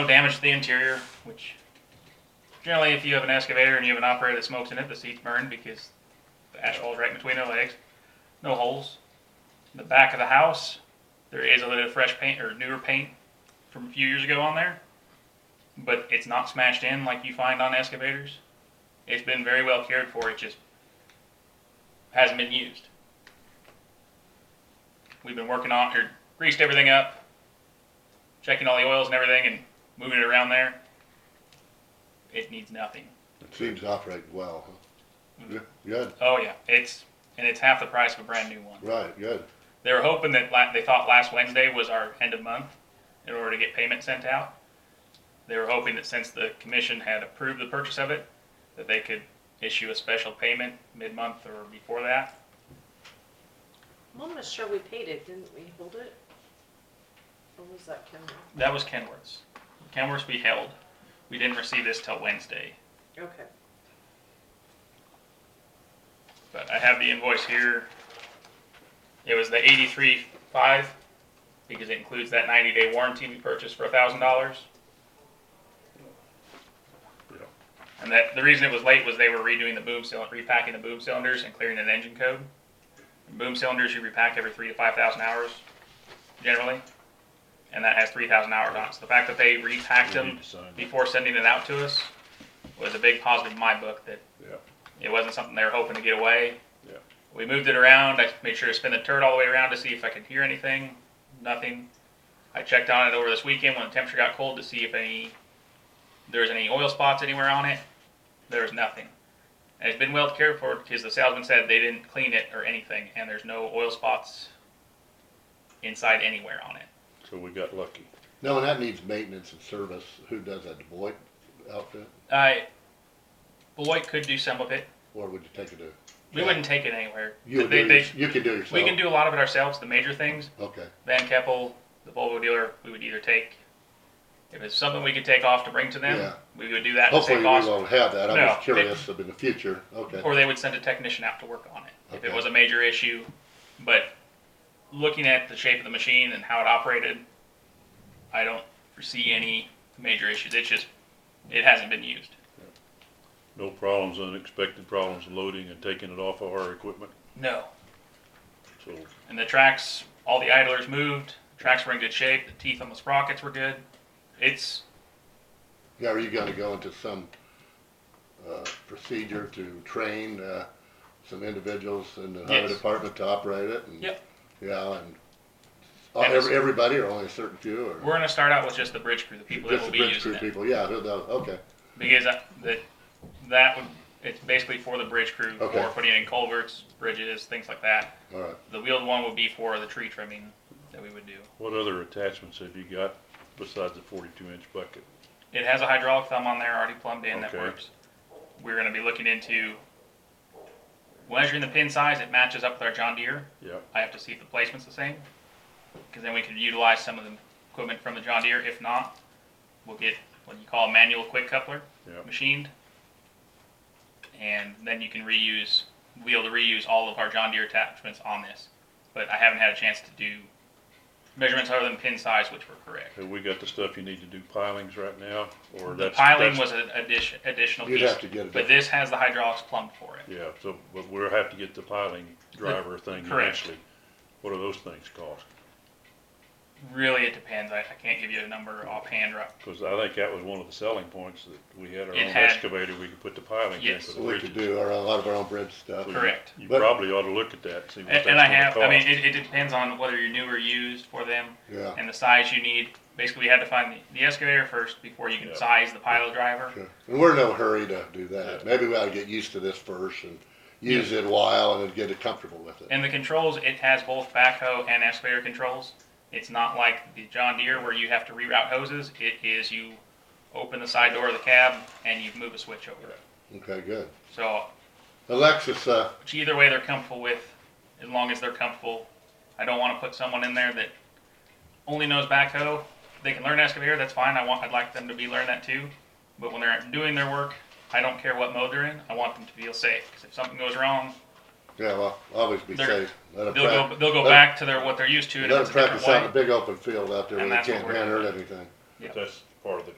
No damage to the interior, which generally, if you have an excavator and you have an operator that smokes in it, the seats burn because the ash falls right between their legs. No holes. The back of the house, there is a little fresh paint or newer paint from a few years ago on there, but it's not smashed in like you find on excavators. It's been very well cared for. It just hasn't been used. We've been working on or greased everything up, checking all the oils and everything, and moving it around there. It needs nothing. It seems to operate well, huh? Mhm. Yeah, Good, Oh yeah, it's and it's half the price of a brand new one. right, good. They were hoping that la- they thought last Wednesday was our end of month in order to get payment sent out. They were hoping that since the commission had approved the purchase of it, that they could issue a special payment mid-month or before that. I'm almost sure we paid it, didn't we hold it? Or was that Kendall? That was Kenworth's. Kenworth's we held. We didn't receive this till Wednesday, Okay. but I have the invoice here. It was the eighty-three five because it includes that ninety-day warranty we purchased for a thousand dollars. Yeah. And that the reason it was late was they were redoing the boom cylinder, repacking the boom cylinders and clearing an engine code. Boom cylinders you repack every three to five thousand hours, generally, and that has three thousand hours on it. So the fact that they repacked We them need to sign that. before sending it out to us was a big positive in my book that Yeah. it wasn't something they were hoping to get away. Yeah. We moved it around. I made sure to spin the turret all the way around to see if I could hear anything. Nothing. I checked on it over this weekend when the temperature got cold to see if any there was any oil spots anywhere on it. There was nothing. And it's been well cared for because the salesman said they didn't clean it or anything, and there's no oil spots inside anywhere on it. So we got lucky. No, and that needs maintenance and service. Who does that, the Boyd outfit? I Beloit could do some of it. Or would you take it to? We wouldn't take it anywhere. You would They- do, they- it- you could do it yourself? we can do a lot of it ourselves. The major things, Okay, Van Keppel, the Volvo dealer, we would either take, if it's something we could take off to bring to them, Yeah. we would do that to hopefully save we cost. won't have that. I'm No, just they- curious of in the future, okay. Or they would send a technician out to work on it if it Okay. was a major issue. But looking at the shape of the machine and how it operated, I don't foresee any major issues. It's just, it hasn't been used. No problems, unexpected problems loading and taking it off of our equipment. No. So And the tracks, all the idlers moved. The tracks were in good shape. The teeth on the sprockets were good. It's, Yeah, are you gonna go into some, uh, procedure to train, uh, some individuals in the highway Yes. department to operate it? and- Yep. Yeah, and, oh, And it's- every- everybody or only a certain few or? we're going to start out with just the bridge crew, the people that Just will be the bridge using crew it. people, yeah, who knows, okay, Because that, that, that would, it's basically for the bridge crew, Okay. for putting in culverts, bridges, things like that. all right. The wheeled one would be for the tree trimming that we would do. what other attachments have you got besides the forty-two inch bucket? It has a hydraulic thumb on there already plumbed in that Okay. works. We're gonna be looking into measuring the pin size, it matches up with our John Deere. Yeah, I have to see if the placement's the same, because then we could utilize some of the equipment from the John Deere. If not, we'll get what you call a manual quick coupler. yeah. machined. And then you can reuse, be able to reuse all of our John Deere attachments on this. But I haven't had a chance to do measurements other than pin size, which were correct. Have we got the stuff you need to do pilings right now, or The that's? piling that's- was an addition, additional You'd piece. have to get it But up. this has the hydraulics plumbed for it. Yeah, so, but we'll have to get the piling driver thing correct. eventually. What do those things cost? Really, it depends. I, I can't give you a number offhand. Right? Cause I think that was one of the selling points that we had our It own had- excavator, we could put the piling in Yes. for the So we could bridges. do our, a lot of our own bridge stuff. So you- Correct. You But- probably ought to look at that, see what that's And, and gonna I have, cost. I mean, it, it depends on whether you're new or used for them Yeah, and the size you need. Basically, we had to find the, the excavator first before you can Yeah. size the pile driver. sure. And we're in no hurry to do that. Maybe we ought to get used to this first and use it a while and then get it comfortable with it. And the controls, it has both backhoe and excavator controls. It's not like the John Deere where you have to reroute hoses. It is you open the side door of the cab and you move a switch over. Okay, good. So Alexis, uh, which either way they're comfortable with, as long as they're comfortable. I don't want to put someone in there that only knows backhoe. They can learn excavator, that's fine. I want, I'd like them to be learn that too. But when they're doing their work, I don't care what mode they're in. I want them to feel safe. Because if something goes wrong, yeah, well, always be They're- safe. Let them they'll go, practice, they'll go let- back to their what they're used to. let And if them it's a different practice out in way. the big open field out there where And they that's what can't we're hand hurt doing. anything. Yeah. But that's, part of the